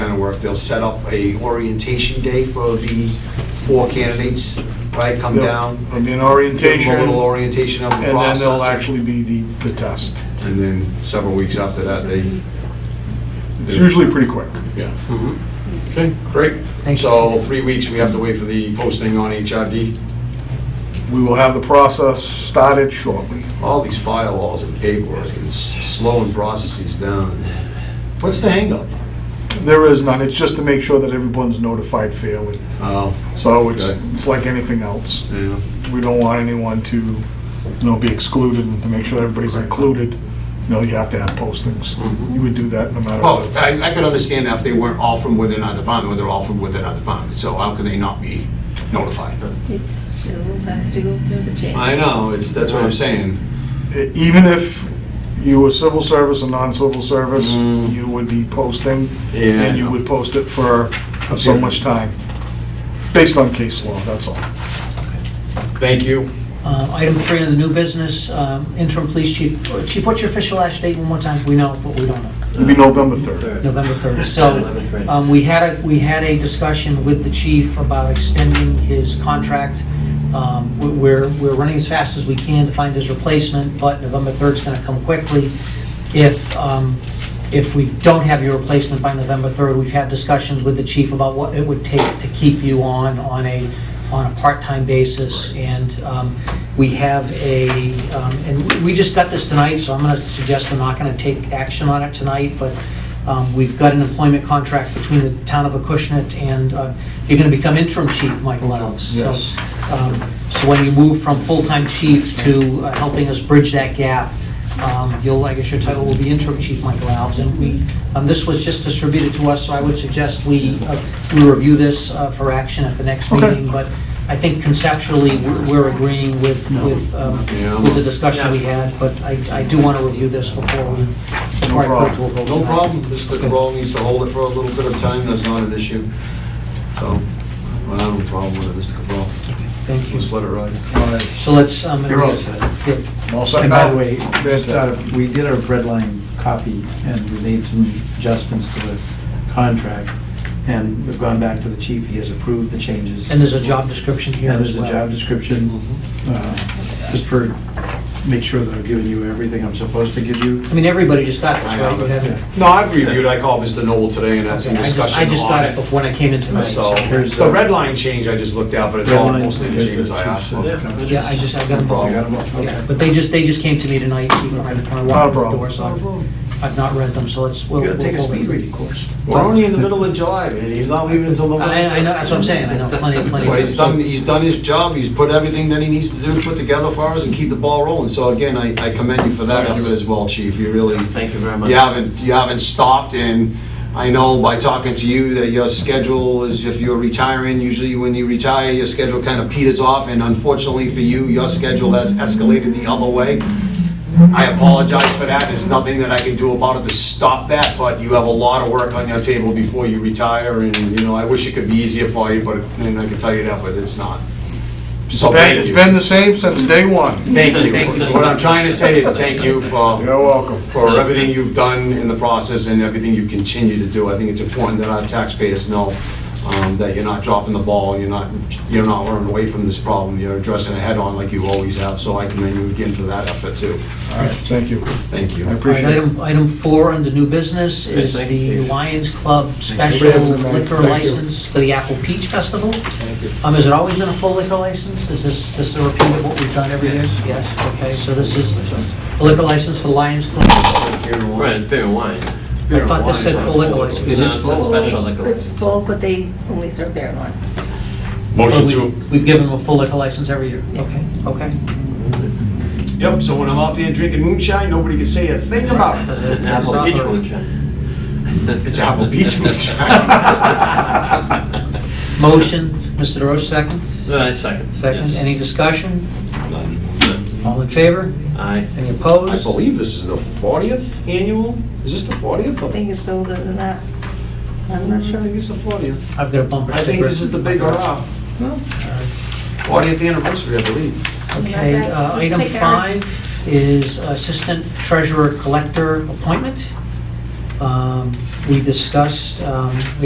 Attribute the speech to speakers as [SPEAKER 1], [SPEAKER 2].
[SPEAKER 1] line of work. They'll set up a orientation day for the four candidates, right? Come
[SPEAKER 2] Yep.
[SPEAKER 1] down,
[SPEAKER 2] I
[SPEAKER 1] give
[SPEAKER 2] mean,
[SPEAKER 1] them a little
[SPEAKER 2] orientation,
[SPEAKER 1] orientation of the
[SPEAKER 2] and then
[SPEAKER 1] process.
[SPEAKER 2] there'll actually be the, the test.
[SPEAKER 1] And then several weeks after that, they.
[SPEAKER 2] It's usually pretty quick.
[SPEAKER 1] Yeah.
[SPEAKER 2] Mm-hmm. Okay.
[SPEAKER 1] Great.
[SPEAKER 3] Thank
[SPEAKER 1] So three weeks, we have to wait for the posting on HRD.
[SPEAKER 2] We will have the process started shortly.
[SPEAKER 1] All these firewalls and paperwork is slowing processes down. What's the hangup?
[SPEAKER 2] There is none, it's just to make sure that everyone's notified fairly.
[SPEAKER 1] Oh,
[SPEAKER 2] So it's,
[SPEAKER 1] Okay.
[SPEAKER 2] it's like anything else.
[SPEAKER 1] yeah.
[SPEAKER 2] We don't want anyone to, you know, be excluded, and to make sure everybody's included, you know, you have to have postings.
[SPEAKER 1] Mhm.
[SPEAKER 2] You would do that no matter
[SPEAKER 1] Well,
[SPEAKER 2] what.
[SPEAKER 1] Oh, I, I could understand if they weren't all from within our department, or they're all from within our department, so how could they not be notified?
[SPEAKER 4] It's still has to go through the checks.
[SPEAKER 1] I know, it's, that's what I'm saying.
[SPEAKER 2] E- Even if you were civil service and non-civil service,
[SPEAKER 1] Mm.
[SPEAKER 2] you would be posting,
[SPEAKER 1] Yeah, I
[SPEAKER 2] and you
[SPEAKER 1] know.
[SPEAKER 2] would post it for so much time, based on case law, that's all.
[SPEAKER 1] Thank you.
[SPEAKER 3] Uh, Item three on the new business, um, interim police chief. Uh, Chief, what's your official last date one more time? We know, but we don't know.
[SPEAKER 2] It'd
[SPEAKER 1] Uh,
[SPEAKER 2] be November 3rd.
[SPEAKER 3] November 3rd. So um, we had a, we had a discussion with the chief about extending his contract. Um, we- We're, we're running as fast as we can to find his replacement, but November 3rd is going to come quickly. If, um, if we don't have your replacement by November 3rd, we've had discussions with the chief about what it would take to keep you on, on a, on a part-time basis. And um, we have a, um, and we- we just got this tonight, so I'm going to suggest we're not going to take action on it tonight, but um, We've got an employment contract between the town of Acushnet and, uh, you're going to become interim chief, Michael Reynolds. So,
[SPEAKER 2] Yes.
[SPEAKER 3] um, So when you move from full-time chief to uh, helping us bridge that gap, um, you'll, I guess your title will be interim chief, Michael Reynolds. And we, um, this was just distributed to us, so I would suggest we, uh, we review this uh, for action at the next
[SPEAKER 2] Okay.
[SPEAKER 3] meeting. But I think conceptually, we're we're agreeing with, with um,
[SPEAKER 1] Yeah.
[SPEAKER 3] with the discussion we had. But I I do want to review this before we, before I put it to a vote.
[SPEAKER 1] No
[SPEAKER 3] tonight.
[SPEAKER 1] problem, Mr. Cabral needs to hold it for a little bit of time, that's not an issue. So, I have no problem with it, Mr. Cabral.
[SPEAKER 3] Thank you.
[SPEAKER 1] Just let it ride.
[SPEAKER 2] All right,
[SPEAKER 3] So let's, um,
[SPEAKER 5] You're all set.
[SPEAKER 3] Yeah.
[SPEAKER 2] I'm all set
[SPEAKER 5] And by
[SPEAKER 2] now?
[SPEAKER 5] the way, just, uh,
[SPEAKER 2] Fantastic.
[SPEAKER 5] we did our bread line copy, and we made some adjustments to the contract, and we've gone back to the chief, he has approved the changes.
[SPEAKER 3] and there's a job description here
[SPEAKER 5] And
[SPEAKER 3] as
[SPEAKER 5] there's a
[SPEAKER 3] well.
[SPEAKER 5] job description,
[SPEAKER 3] Mm-hmm.
[SPEAKER 5] uh, just for, make sure that I've given you everything I'm supposed to give you.
[SPEAKER 3] I mean, everybody just got this,
[SPEAKER 1] I
[SPEAKER 3] right?
[SPEAKER 1] know,
[SPEAKER 3] You haven't-
[SPEAKER 5] Yeah.
[SPEAKER 1] No, I've reviewed, I called Mr. Noble today and had some
[SPEAKER 3] Okay, I just, I
[SPEAKER 1] discussion
[SPEAKER 3] just
[SPEAKER 1] on
[SPEAKER 3] got it
[SPEAKER 1] it.
[SPEAKER 3] before when I came in tonight.
[SPEAKER 1] So,
[SPEAKER 3] so-
[SPEAKER 5] Here's
[SPEAKER 1] the
[SPEAKER 5] the-
[SPEAKER 1] red line change I just looked at, but it's
[SPEAKER 5] Red
[SPEAKER 1] all
[SPEAKER 5] line,
[SPEAKER 1] mostly the
[SPEAKER 5] there's the
[SPEAKER 1] changes I
[SPEAKER 5] two
[SPEAKER 1] asked for.
[SPEAKER 5] steps.
[SPEAKER 1] No
[SPEAKER 3] Yeah, I just, I got them
[SPEAKER 1] problem.
[SPEAKER 3] all.
[SPEAKER 5] You got 'em all?
[SPEAKER 3] Yeah,
[SPEAKER 5] Okay.
[SPEAKER 3] But they just, they just came to me tonight, chief, when I, when I walked in the
[SPEAKER 2] problem.
[SPEAKER 3] door, so I've-
[SPEAKER 1] problem.
[SPEAKER 3] I've not read them, so let's, we'll.
[SPEAKER 5] You gotta take a
[SPEAKER 3] we'll-
[SPEAKER 5] speed reading course.
[SPEAKER 1] We're only in the middle of July, man, he's not leaving until November.
[SPEAKER 3] I, I know, that's what I'm saying, I know, plenty, plenty.
[SPEAKER 1] But
[SPEAKER 3] of
[SPEAKER 1] he's
[SPEAKER 3] time.
[SPEAKER 1] done, he's done his job, he's put everything that he needs to do, put together for us and keep the ball rolling. So again, I I commend you for that effort as well, chief, you really,
[SPEAKER 6] Thank you very much.
[SPEAKER 1] you haven't, you haven't stopped. And I know by talking to you that your schedule is, if you're retiring, usually when you retire, your schedule kind of peters off. And unfortunately for you, your schedule has escalated the other way. I apologize for that, there's nothing that I can do about it to stop that, but you have a lot of work on your table before you retire, and, you know, I wish it could be easier for you, but, and I can tell you that, but it's not. So
[SPEAKER 2] Ben,
[SPEAKER 1] thank
[SPEAKER 2] It's
[SPEAKER 1] you.
[SPEAKER 2] been the same since day one.
[SPEAKER 1] Thank you. What I'm trying to say is thank you for,
[SPEAKER 2] You're welcome.
[SPEAKER 1] for everything you've done in the process and everything you continue to do. I think it's important that our taxpayers know um, that you're not dropping the ball, you're not, you're not running away from this problem, you're addressing it head-on like you always have, so I commend you again for that effort, too.
[SPEAKER 2] All right, thank you.
[SPEAKER 1] Thank you.
[SPEAKER 2] I
[SPEAKER 3] All right,
[SPEAKER 2] appreciate it.
[SPEAKER 3] item, item four under new business
[SPEAKER 6] Yes,
[SPEAKER 3] is
[SPEAKER 6] thank you,
[SPEAKER 3] the
[SPEAKER 6] Dave.
[SPEAKER 3] Lions Club
[SPEAKER 2] Thank
[SPEAKER 3] special
[SPEAKER 2] you. Thank you.
[SPEAKER 3] liquor license for the Apple Peach Festival. Um, has it always been a full liquor license? Is this, this a repeat of what we've done every year? Yes. Okay, so this is a liquor license for Lions Club. I
[SPEAKER 6] Right, it's beer and wine.
[SPEAKER 3] thought this said full liquor license.
[SPEAKER 6] It is full. Special liquor.
[SPEAKER 4] It's full, but they only serve beer and wine.
[SPEAKER 1] Motion
[SPEAKER 3] Or we- We've given them a full liquor license every year?
[SPEAKER 4] Yes.
[SPEAKER 3] Okay, okay.
[SPEAKER 1] Yep, so when I'm out there drinking moonshine, nobody can say a thing about it.
[SPEAKER 6] Apple peach moonshine.
[SPEAKER 1] It's Apple Beach moonshine.
[SPEAKER 3] Motion, Mr. DeRoche, second?
[SPEAKER 6] Uh, second.
[SPEAKER 3] Second,
[SPEAKER 6] Yes.
[SPEAKER 3] any discussion?
[SPEAKER 1] I
[SPEAKER 3] All in favor?
[SPEAKER 6] Aye.
[SPEAKER 3] Any opposed?
[SPEAKER 1] believe this is the 40th annual, is this the 40th?
[SPEAKER 4] I think it's older than that. I'm
[SPEAKER 1] I
[SPEAKER 4] not sure.
[SPEAKER 1] think it's the 40th.
[SPEAKER 3] I've got a bumper
[SPEAKER 1] I
[SPEAKER 3] sticker.
[SPEAKER 1] think this is the big hurrah. 40th anniversary, I believe.
[SPEAKER 3] Okay, uh,
[SPEAKER 4] Let's
[SPEAKER 3] item
[SPEAKER 4] take our-
[SPEAKER 3] five is Assistant Treasurer Collector appointment. Um, We discussed, um,